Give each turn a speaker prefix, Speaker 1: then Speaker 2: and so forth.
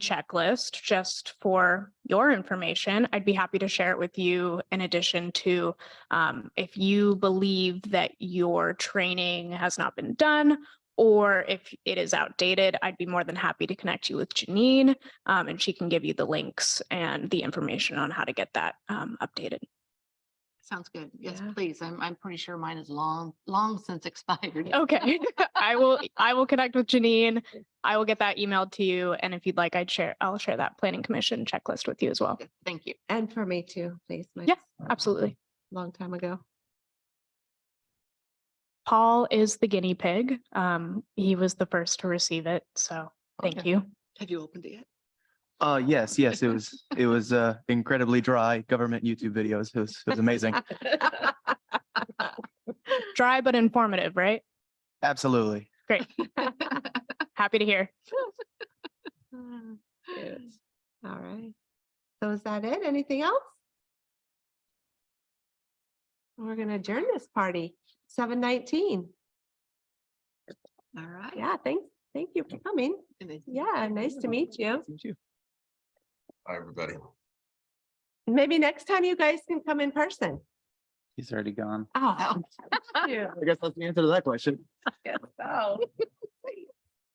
Speaker 1: checklist just for your information. I'd be happy to share it with you in addition to um, if you believe that your training has not been done or if it is outdated, I'd be more than happy to connect you with Janine um, and she can give you the links and the information on how to get that um, updated.
Speaker 2: Sounds good. Yes,
Speaker 1: Yeah.
Speaker 2: please. I'm, I'm pretty sure mine is long, long since expired.
Speaker 1: Okay, I will, I will connect with Janine. I will get that emailed to you. And if you'd like, I'd share, I'll share that planning commission checklist with you as well.
Speaker 2: Good, Thank you.
Speaker 3: And for me too, please. Mike's
Speaker 1: Yeah, Absolutely.
Speaker 3: a Long time ago.
Speaker 1: Paul is the guinea pig. Um, he was the first to receive it, so thank
Speaker 2: Okay.
Speaker 1: you.
Speaker 2: Have you opened it yet?
Speaker 4: Uh, yes, yes, it was, it was, uh, incredibly dry government YouTube videos. It was, it was amazing.
Speaker 1: Dry but informative, right?
Speaker 4: Absolutely.
Speaker 1: Happy to hear.
Speaker 3: Yes. All right. So is that it? Anything else? We're gonna adjourn this party, seven nineteen.
Speaker 2: All right.
Speaker 3: Yeah, thanks. Thank you for coming.
Speaker 2: And then-
Speaker 3: Yeah, nice to meet you.
Speaker 5: Hi, everybody.
Speaker 3: Maybe next time you guys can come in person.
Speaker 4: He's already gone.
Speaker 3: Oh.
Speaker 2: Oh.
Speaker 4: I guess that's the answer to that question.
Speaker 3: yes, oh.